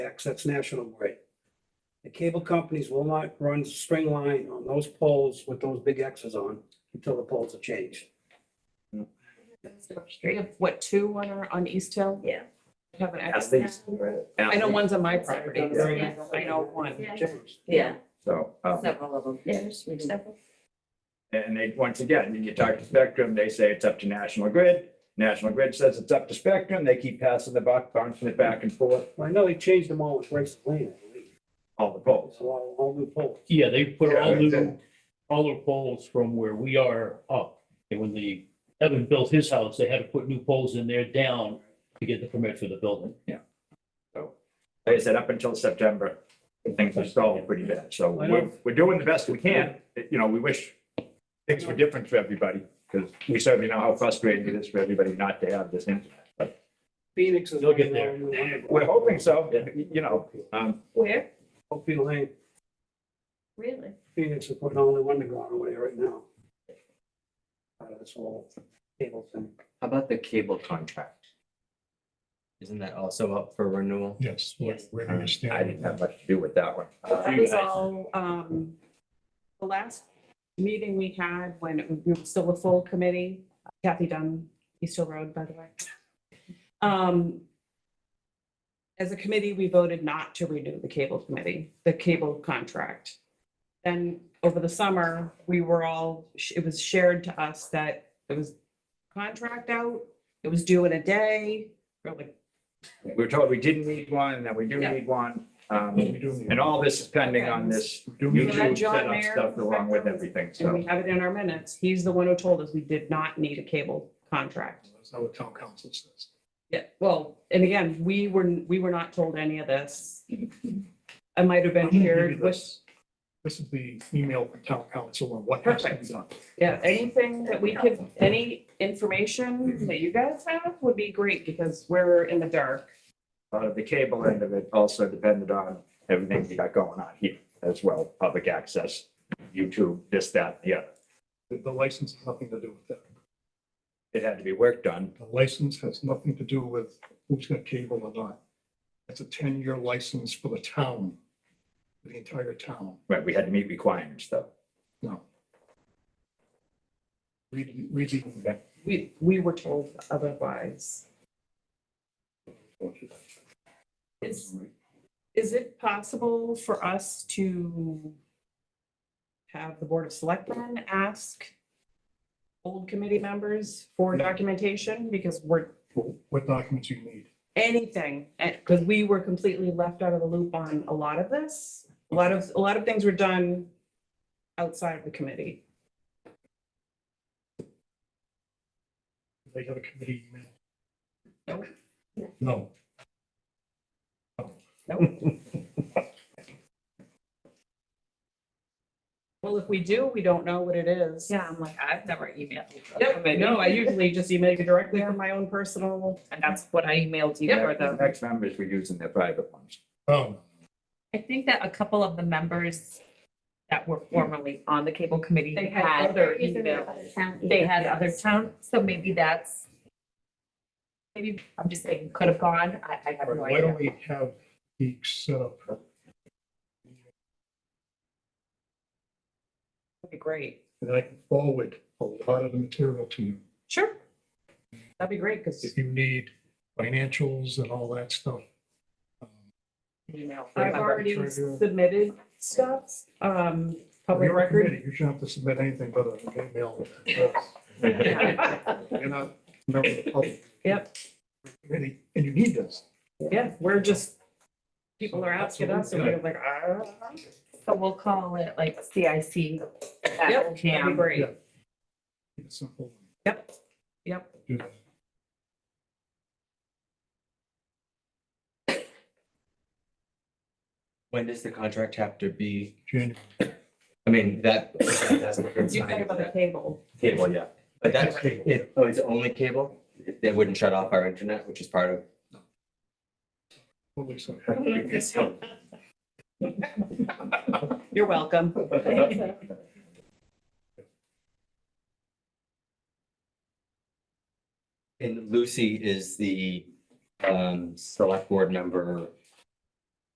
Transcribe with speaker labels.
Speaker 1: X, that's National Grid. The cable companies will not run string line on those poles with those big Xs on until the poles are changed.
Speaker 2: We have, what, two on our, on East Hill?
Speaker 3: Yeah.
Speaker 2: Have an
Speaker 4: As
Speaker 2: X.
Speaker 4: they.
Speaker 2: I know one's on my property.
Speaker 3: Yeah.
Speaker 2: I know one.
Speaker 1: Changed.
Speaker 3: Yeah,
Speaker 4: So, um,
Speaker 3: several of them. There's several.
Speaker 4: and they, once again, you talk to Spectrum, they say it's up to National Grid. National Grid says it's up to Spectrum. They keep passing the buck, bouncing it back and forth,
Speaker 1: Well, I know they changed them all with Grace Lane, I believe.
Speaker 4: all the poles.
Speaker 1: It's a all, all new poles.
Speaker 5: Yeah, they put
Speaker 4: Yeah,
Speaker 5: all
Speaker 4: right
Speaker 5: new,
Speaker 4: there.
Speaker 5: all their poles from where we are up. And when the, Evan built his house, they had to put new poles in there down to get the permit for the building.
Speaker 4: Like I said, up until September, things are stalled pretty bad. So
Speaker 1: I
Speaker 4: we're,
Speaker 1: know.
Speaker 4: we're doing the best we can. You know, we wish things were different for everybody because we certainly know how frustrating it is for everybody not to have this internet. But
Speaker 1: Phoenix is.
Speaker 5: They'll get there.
Speaker 4: we're hoping so, you know, um,
Speaker 3: Where?
Speaker 1: Hope you Lane,
Speaker 3: Really?
Speaker 1: Phoenix is putting only one to go on over there right now. Uh, Out of this whole cable thing.
Speaker 6: How about the cable contract? Isn't that also up for renewal?
Speaker 7: Yes, we're,
Speaker 3: Yes.
Speaker 7: we're
Speaker 4: I
Speaker 7: gonna
Speaker 4: didn't
Speaker 7: stand.
Speaker 4: have much to do with that one.
Speaker 2: That was all, um, the last meeting we had when it was- we were still a full committee, Kathy Dunn, East Hill Road, by the way. Um, as a committee, we voted not to renew the cable committee, the cable contract. Then over the summer, we were all, it was shared to us that it was contract out, it was due in a day. We're like,
Speaker 4: We were told we didn't need one, and that we do
Speaker 2: Yeah.
Speaker 4: need one.
Speaker 7: We
Speaker 4: Um,
Speaker 7: do need-
Speaker 4: and all this is pending on this
Speaker 7: we do need-
Speaker 2: You had
Speaker 4: YouTube
Speaker 2: John
Speaker 4: setup
Speaker 2: Mayer
Speaker 4: stuff along with everything,
Speaker 2: And we
Speaker 4: so.
Speaker 2: have it in our minutes. He's the one who told us we did not need a cable contract.
Speaker 7: That's not what town council says.
Speaker 2: Yeah, well, and again, we were, we were not told any of this. I might have been
Speaker 7: I'm gonna give
Speaker 2: here
Speaker 7: you
Speaker 2: with,
Speaker 7: this. This is the email from town council on what has to be
Speaker 2: Perfect.
Speaker 7: done.
Speaker 2: yeah, anything that we could, any information that you guys have would be great because we're in the dark.
Speaker 4: A lot of the cable end of it also depended on everything we got going on here as well, public access, YouTube, this, that, and the other.
Speaker 7: The, the license has nothing to do with that.
Speaker 4: It had to be work done.
Speaker 7: The license has nothing to do with who's got cable or not. It's a ten-year license for the town, for the entire town.
Speaker 4: Right, we had to meet requirements, though.
Speaker 7: No. Read, read the back.
Speaker 2: We, we were told otherwise. Is, is it possible for us to have the Board of Selectmen ask old committee members for documentation? Because we're,
Speaker 7: What documents you need.
Speaker 2: anything, because we were completely left out of the loop on a lot of this. A lot of, a lot of things were done outside of the committee.
Speaker 7: They have a committee email.
Speaker 2: Nope.
Speaker 7: No.
Speaker 2: Well, if we do, we don't know what it is.
Speaker 3: Yeah, I'm like, I've never emailed. you.
Speaker 2: Yep, no, I usually just email you directly from my own personal.
Speaker 3: And that's what I emailed you for
Speaker 4: The
Speaker 3: the.
Speaker 4: next members were using their private ones.
Speaker 7: Oh,
Speaker 3: I think that a couple of the members that were formerly on the cable committee
Speaker 2: They had
Speaker 3: had
Speaker 2: other
Speaker 3: their email. They
Speaker 8: They
Speaker 3: had other town, so maybe that's, maybe, I'm just saying, could have gone, I, I have no
Speaker 7: why don't
Speaker 3: idea.
Speaker 7: we have each set up
Speaker 2: That'd be great.
Speaker 7: And I can forward a lot of the material to you.
Speaker 2: Sure. That'd be great, because
Speaker 7: If you need financials and all that stuff. Um,
Speaker 3: Email.
Speaker 2: I've
Speaker 3: remember.
Speaker 2: already submitted stuff, um, public
Speaker 7: You're a
Speaker 2: record.
Speaker 7: committee, You shouldn't have to submit anything but an email. address. You're not a member of the public.
Speaker 2: Yep.
Speaker 7: Committee, And you need this.
Speaker 2: Yeah, we're just, people are asking us, and we're like, ah.
Speaker 3: So we'll call it like CIC.
Speaker 2: Yep,
Speaker 3: at
Speaker 2: that'd be
Speaker 3: OCAM.
Speaker 2: great.
Speaker 7: It's simple.
Speaker 2: Yep, yep.
Speaker 7: Do that.
Speaker 6: When does the contract have to be?
Speaker 7: January.
Speaker 6: I mean, that.
Speaker 2: You think about the cable.
Speaker 6: Cable, yeah. But that's,
Speaker 7: Cable.
Speaker 6: it, oh, it's only cable? They wouldn't shut off our internet, which is part of.
Speaker 7: Holy so-
Speaker 2: You're welcome.
Speaker 6: And Lucy is the, um, select board member